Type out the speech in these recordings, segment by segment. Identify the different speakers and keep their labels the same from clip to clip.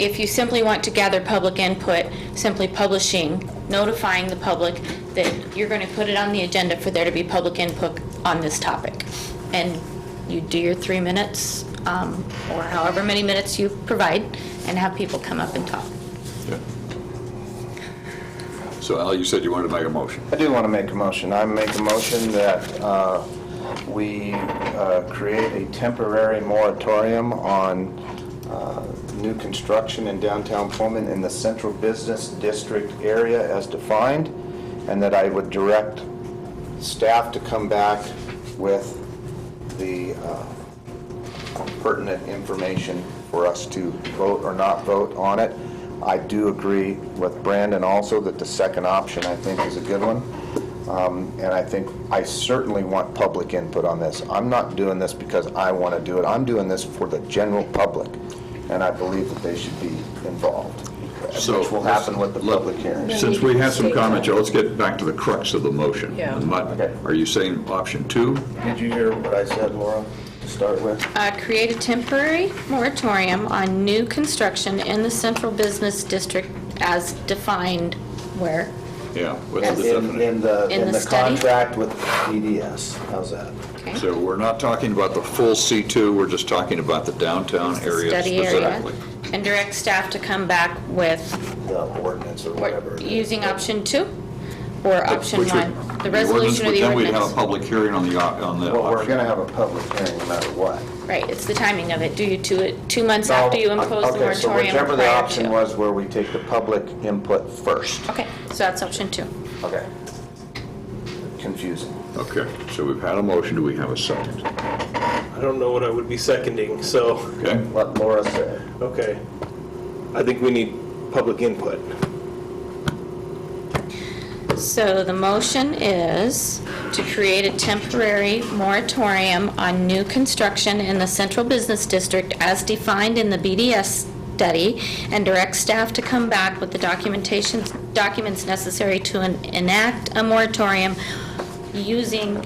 Speaker 1: If you simply want to gather public input, simply publishing, notifying the public that you're going to put it on the agenda for there to be public input on this topic. And you do your three minutes, um, or however many minutes you provide, and have people come up and talk.
Speaker 2: Yeah. So Al, you said you wanted to make a motion.
Speaker 3: I do want to make a motion. I make a motion that uh, we uh, create a temporary moratorium on uh, new construction in downtown Pullman in the central business district area as defined, and that I would direct staff to come back with the uh, pertinent information for us to vote or not vote on it. I do agree with Brandon also that the second option, I think, is a good one. Um, And I think, I certainly want public input on this. I'm not doing this because I want to do it. I'm doing this for the general public, and I believe that they should be involved,
Speaker 2: So-
Speaker 3: which will happen with the public hearing.
Speaker 2: Since we have some comments, Joe, let's get back to the crux of the motion.
Speaker 4: Yeah.
Speaker 2: And what-
Speaker 3: Okay.
Speaker 2: Are you saying option two?
Speaker 3: Did you hear what I said, Laura, to start with?
Speaker 1: Uh, Create a temporary moratorium on new construction in the central business district as defined where?
Speaker 2: Yeah. What's the
Speaker 3: In
Speaker 2: definition?
Speaker 3: in the,
Speaker 1: In
Speaker 3: in
Speaker 1: the
Speaker 3: the
Speaker 1: study?
Speaker 3: contract with DDS. How's that?
Speaker 1: Okay.
Speaker 2: So we're not talking about the full C2, we're just talking about the downtown area
Speaker 1: Study area,
Speaker 2: specifically.
Speaker 1: and direct staff to come back with,
Speaker 3: The ordinance or whatever.
Speaker 1: or
Speaker 3: it is.
Speaker 1: using option two or option
Speaker 2: Which would-
Speaker 1: one, the resolution or the
Speaker 2: But then we'd have a
Speaker 1: ordinance.
Speaker 2: public hearing on the, op- on the
Speaker 3: Well, we're
Speaker 2: option.
Speaker 3: gonna have a public hearing no matter what.
Speaker 1: Right, it's the timing of it. Do you do it two months after you impose the
Speaker 3: Okay, so
Speaker 1: moratorium or
Speaker 3: whichever the
Speaker 1: prior
Speaker 3: option
Speaker 1: to?
Speaker 3: was where we take the public input first.
Speaker 1: Okay, so that's option two.
Speaker 3: Okay. Confusing.
Speaker 2: Okay, so we've had a motion, do we have a second?
Speaker 5: I don't know what I would be seconding, so,
Speaker 2: Okay,
Speaker 3: What Laura said.
Speaker 5: okay. I think we need public input.
Speaker 1: So the motion is to create a temporary moratorium on new construction in the central business district as defined in the BDS study and direct staff to come back with the documentation, documents necessary to en- enact a moratorium using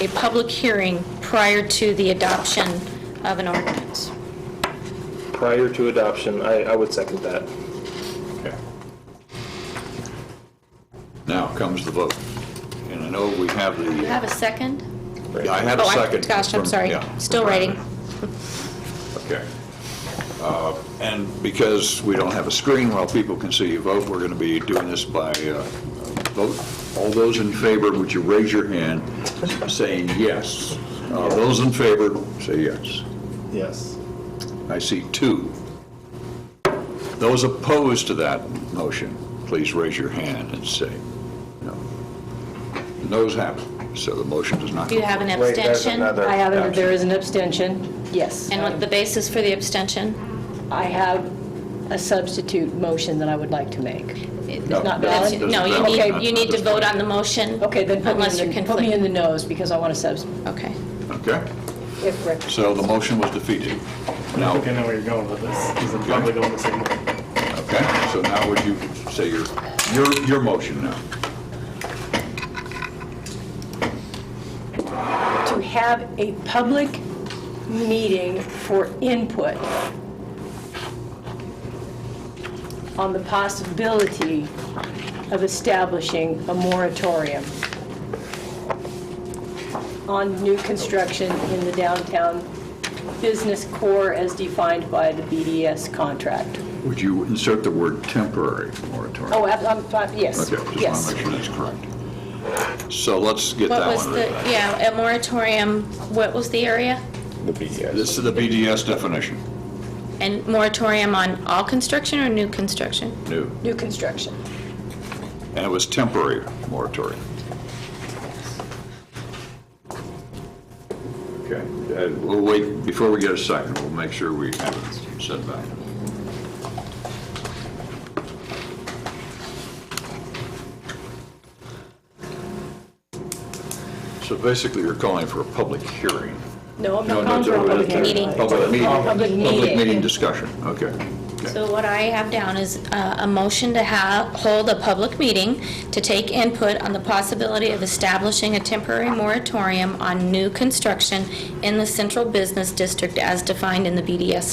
Speaker 1: a public hearing prior to the adoption of an ordinance.
Speaker 5: Prior to adoption, I, I would second that.
Speaker 2: okay. Now comes the vote. And I know we have the.
Speaker 1: Do you have a second?
Speaker 2: I had a
Speaker 1: Oh, I-
Speaker 2: second.
Speaker 1: Gosh, I'm
Speaker 2: from-
Speaker 1: sorry.
Speaker 2: yeah,
Speaker 1: Still
Speaker 2: from
Speaker 1: writing.
Speaker 2: Brandon. Okay. Uh, And because we don't have a screen while people can see you vote, we're going to be doing this by uh, vote. All those in favor, would you raise your hand saying yes? Uh, Those in favor, say yes.
Speaker 5: Yes.
Speaker 2: I see two. Those opposed to that motion, please raise your hand and say no. Those have it, so the motion does not.
Speaker 1: Do you have an
Speaker 3: Wait,
Speaker 1: abstention?
Speaker 3: there's another
Speaker 4: I have, it.
Speaker 2: Abstention.
Speaker 4: there is an abstention, yes.
Speaker 1: And what the basis for the abstention?
Speaker 4: I have a substitute motion that I would like to make.
Speaker 2: No,
Speaker 4: not
Speaker 2: that's-
Speaker 4: valid?
Speaker 2: that's
Speaker 1: No, you
Speaker 2: valid.
Speaker 1: need,
Speaker 2: Not-
Speaker 1: you
Speaker 2: not
Speaker 1: need to
Speaker 2: this
Speaker 1: vote
Speaker 2: time.
Speaker 1: on the motion.
Speaker 4: Okay, then put me
Speaker 1: Unless
Speaker 4: in
Speaker 1: you're
Speaker 4: the, put me in
Speaker 1: conflicted.
Speaker 4: the nose, because I want to subs,
Speaker 1: Okay.
Speaker 2: Okay,
Speaker 4: if Rick
Speaker 2: so the motion was defeated. Now,
Speaker 6: I think I know where you're going with this, because I'm probably going the same way.
Speaker 2: okay, so now would you say your, your, your motion now?
Speaker 4: to have a public meeting for input on the possibility of establishing a moratorium on new construction in the downtown business core as defined by the BDS contract.
Speaker 2: Would you insert the word temporary moratorium?
Speaker 4: Oh, I'm- I'm, fine, yes,
Speaker 2: Okay, just
Speaker 4: yes.
Speaker 2: want to make sure that's correct. So let's get
Speaker 1: What
Speaker 2: that
Speaker 1: was
Speaker 2: one.
Speaker 1: the,
Speaker 2: right.
Speaker 1: yeah, a moratorium, what was the area?
Speaker 2: This is the BDS definition,
Speaker 1: And moratorium on all construction or new construction?
Speaker 2: new,
Speaker 4: New construction.
Speaker 2: and it was temporary moratorium. Okay, uh, we'll wait, before we get a second, we'll make sure we have it set back. So basically, you're calling for a public hearing.
Speaker 4: No, I'm
Speaker 2: No, no,
Speaker 4: not calling for a
Speaker 2: no,
Speaker 4: public
Speaker 2: no, no.
Speaker 4: meeting.
Speaker 1: Meeting.
Speaker 2: Public meeting.
Speaker 4: Public meeting.
Speaker 2: discussion, okay.
Speaker 1: So what I have down is uh, a motion to ha hold a public meeting to take input on the possibility of establishing a temporary moratorium on new construction in the central business district as defined in the BDS